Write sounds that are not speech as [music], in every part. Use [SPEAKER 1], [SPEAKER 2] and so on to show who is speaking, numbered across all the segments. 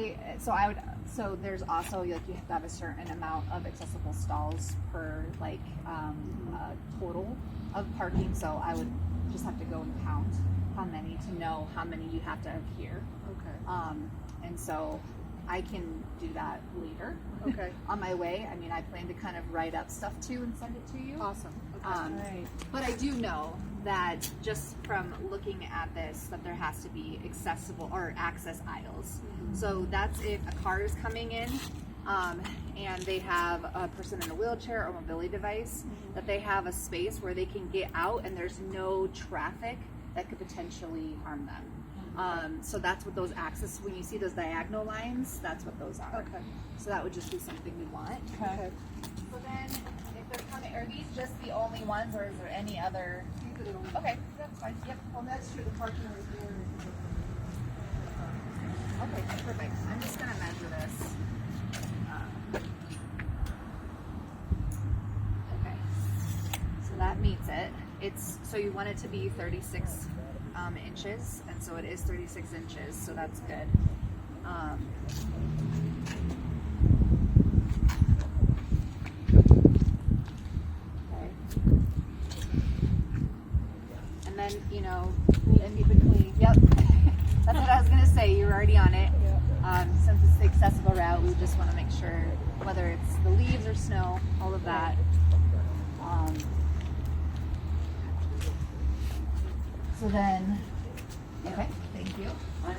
[SPEAKER 1] I, so I would, so there's also, like, you have to have a certain amount of accessible stalls per, like, um, uh, total of parking, so I would just have to go and count how many to know how many you have to have here.
[SPEAKER 2] Okay.
[SPEAKER 1] Um, and so I can do that later.
[SPEAKER 2] Okay.
[SPEAKER 1] On my way, I mean, I plan to kind of write up stuff too and send it to you.
[SPEAKER 2] Awesome. Okay.
[SPEAKER 1] Um,
[SPEAKER 3] Right.
[SPEAKER 1] But I do know that just from looking at this, that there has to be accessible or access aisles.
[SPEAKER 2] Mm-hmm.
[SPEAKER 1] So that's if a car is coming in um, and they have a person in a wheelchair or mobility device,
[SPEAKER 2] Mm-hmm.
[SPEAKER 1] that they have a space where they can get out and there's no traffic that could potentially harm them.
[SPEAKER 2] Mm-hmm.
[SPEAKER 1] Um, so that's what those access, when you see those diagonal lines, that's what those are.
[SPEAKER 2] Okay.
[SPEAKER 1] So that would just be something we want.
[SPEAKER 2] Okay.
[SPEAKER 1] So then, if they're coming, are these just the only ones, or is there any other? Okay, that's fine, yep.
[SPEAKER 3] Well, that's true, the parking right there.
[SPEAKER 1] Okay, perfect. I'm just gonna measure this. Um, Okay, so that meets it. It's, so you want it to be thirty-six, um, inches, and so it is thirty-six inches, so that's good. Um, Okay. And then, you know, in between, yep. [laughs] That's what I was gonna say, you're already on it. Um, since it's the accessible route, we just wanna make sure, whether it's the leaves or snow, all of that. Um, So then, okay, thank you.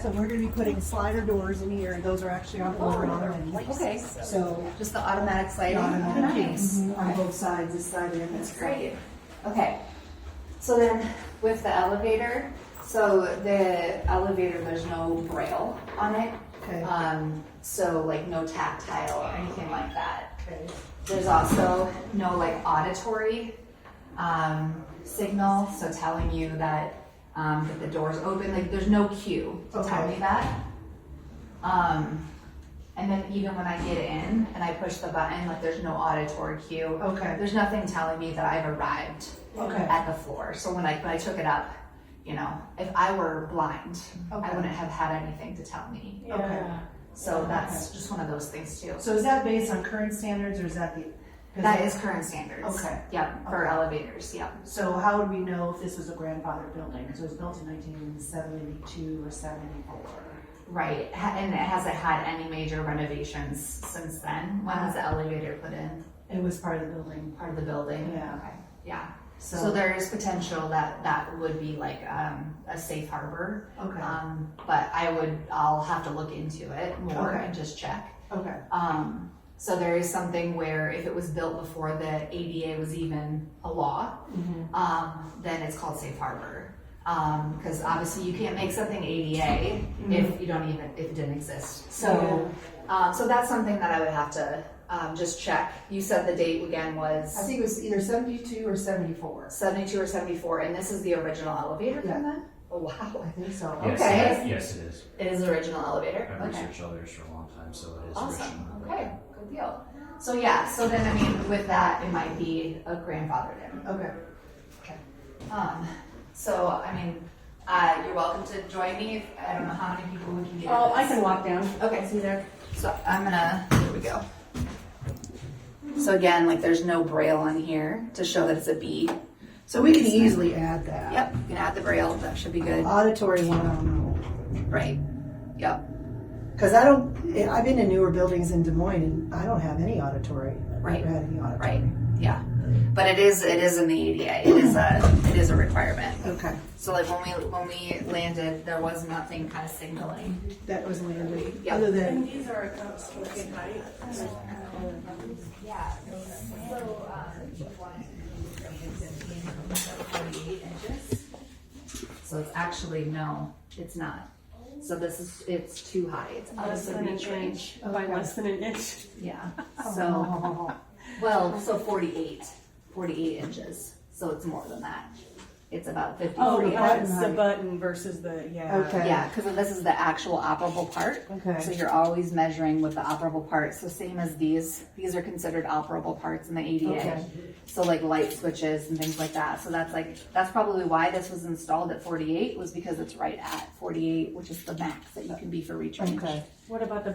[SPEAKER 3] So we're gonna be putting slider doors in here, and those are actually on over and on.
[SPEAKER 1] Okay.
[SPEAKER 3] So,
[SPEAKER 1] Just the automatic Mm-hmm. sliding.
[SPEAKER 3] automatic
[SPEAKER 1] Nice.
[SPEAKER 3] on both sides, this side and this
[SPEAKER 1] That's
[SPEAKER 3] side.
[SPEAKER 1] great. Okay. So then with the elevator, so the elevator, there's no braille on it.
[SPEAKER 3] Okay.
[SPEAKER 1] Um, so like no tactile or anything like that.
[SPEAKER 3] Okay.
[SPEAKER 1] There's also no like auditory um, signal, so telling you that um, that the door's open. Like there's no cue to tell
[SPEAKER 3] Okay.
[SPEAKER 1] me that. Um, and then even when I get in and I push the button, like there's no auditory cue.
[SPEAKER 3] Okay.
[SPEAKER 1] There's nothing telling me that I've arrived
[SPEAKER 3] Okay.
[SPEAKER 1] at the floor. So when I when I took it up, you know, if I were blind, I
[SPEAKER 3] Okay.
[SPEAKER 1] wouldn't have had anything to tell me.
[SPEAKER 3] Okay.
[SPEAKER 1] So that's just one of those things too.
[SPEAKER 3] So is that based on current standards, or is that the? 'cause
[SPEAKER 1] That is current standards.
[SPEAKER 3] Okay.
[SPEAKER 1] Yep, for
[SPEAKER 3] Okay.
[SPEAKER 1] elevators, yep.
[SPEAKER 3] So how would we know if this was a grandfathered building? So it was built in nineteen seventy-two or seventy-four.
[SPEAKER 1] Right, Ha- and it hasn't had any major renovations since then. When was the elevator put in?
[SPEAKER 3] It was part of the building.
[SPEAKER 1] Uh, Part of the building?
[SPEAKER 3] Yeah.
[SPEAKER 1] Okay. Yeah, so
[SPEAKER 3] So,
[SPEAKER 1] there is potential that that would be like, um, a safe harbor.
[SPEAKER 3] okay,
[SPEAKER 4] uh,
[SPEAKER 1] Um, but I would, I'll have to look into it more
[SPEAKER 3] Okay.
[SPEAKER 1] and just check.
[SPEAKER 3] okay,
[SPEAKER 1] Um, so there is something where if it was built before the ADA was even a law,
[SPEAKER 4] mm-hmm.
[SPEAKER 1] um, then it's called safe harbor. Um, cause obviously you can't make something ADA
[SPEAKER 4] Mm-hmm.
[SPEAKER 1] if you don't even, if it didn't exist. So, um, so that's something that I would have to, um, just check. You said the date again
[SPEAKER 4] I
[SPEAKER 1] was
[SPEAKER 4] think it was either seventy-two or seventy-four.
[SPEAKER 1] seventy-two or seventy-four, and this is the original elevator
[SPEAKER 4] Yeah.
[SPEAKER 1] from then? Oh, wow.
[SPEAKER 4] [laughs] I think so.
[SPEAKER 1] Yeah.
[SPEAKER 5] Yes,
[SPEAKER 1] Okay.
[SPEAKER 5] it- Yes, it is.
[SPEAKER 1] It is the original elevator?
[SPEAKER 5] I've
[SPEAKER 1] Okay.
[SPEAKER 5] researched others for a long time, so it is
[SPEAKER 1] Awesome.
[SPEAKER 5] original.
[SPEAKER 1] Okay. Good deal. So yeah. So then, I mean, with that, it might be a grandfathered in.
[SPEAKER 3] okay.
[SPEAKER 1] Um, so I mean, uh, you're welcome to join me. If, I don't know how many people we can get.
[SPEAKER 2] Oh,
[SPEAKER 1] in
[SPEAKER 2] I
[SPEAKER 1] this.
[SPEAKER 2] can walk down.
[SPEAKER 1] Okay.
[SPEAKER 2] See there.
[SPEAKER 1] So I'm gonna. Here we go. So again, like there's no braille on here to show that it's a B.
[SPEAKER 4] So we can easily add that.
[SPEAKER 1] Yep. You can add the braille. That should be good.
[SPEAKER 4] Auditory one, I don't know.
[SPEAKER 1] Right. Yep.
[SPEAKER 4] Cause I don't, I've been in newer buildings in Des Moines and I don't have any auditory. I've
[SPEAKER 1] Right.
[SPEAKER 4] never had any auditory.
[SPEAKER 1] Right. Yeah. But it is. It is in the ADA. It is a. It is a requirement.
[SPEAKER 4] Okay,
[SPEAKER 1] So like when we when we landed, there was nothing kind of signaling.
[SPEAKER 4] that was landed.
[SPEAKER 1] Yep.
[SPEAKER 4] Other than,
[SPEAKER 3] These are kind of spoken height.
[SPEAKER 1] Yeah. So um, she wanted to forty-eight inches. So it's actually no, it's not. So this is it's too high. It's out
[SPEAKER 2] Less
[SPEAKER 1] of the
[SPEAKER 2] than an
[SPEAKER 1] reach
[SPEAKER 2] inch.
[SPEAKER 1] range.
[SPEAKER 2] By
[SPEAKER 4] Okay.
[SPEAKER 2] less than an inch. Oh.
[SPEAKER 1] Yeah.
[SPEAKER 2] [laughs]
[SPEAKER 1] So well, so forty-eight. Forty-eight inches. So it's more than that. It's about fifty.
[SPEAKER 2] Oh,
[SPEAKER 4] Forty
[SPEAKER 2] yeah, it's
[SPEAKER 4] button
[SPEAKER 2] the
[SPEAKER 4] height.
[SPEAKER 2] button versus the, yeah.
[SPEAKER 4] Okay.
[SPEAKER 1] Yeah, because this is the actual operable part.
[SPEAKER 4] Okay.
[SPEAKER 1] So you're always measuring with the operable part. So same as these, these are considered operable parts in the ADA.
[SPEAKER 4] Okay.
[SPEAKER 1] So like light switches and things like that. So that's like, that's probably why this was installed at forty-eight, was because it's right at forty-eight, which is the max that you can be for reach range.
[SPEAKER 4] okay.
[SPEAKER 2] What about the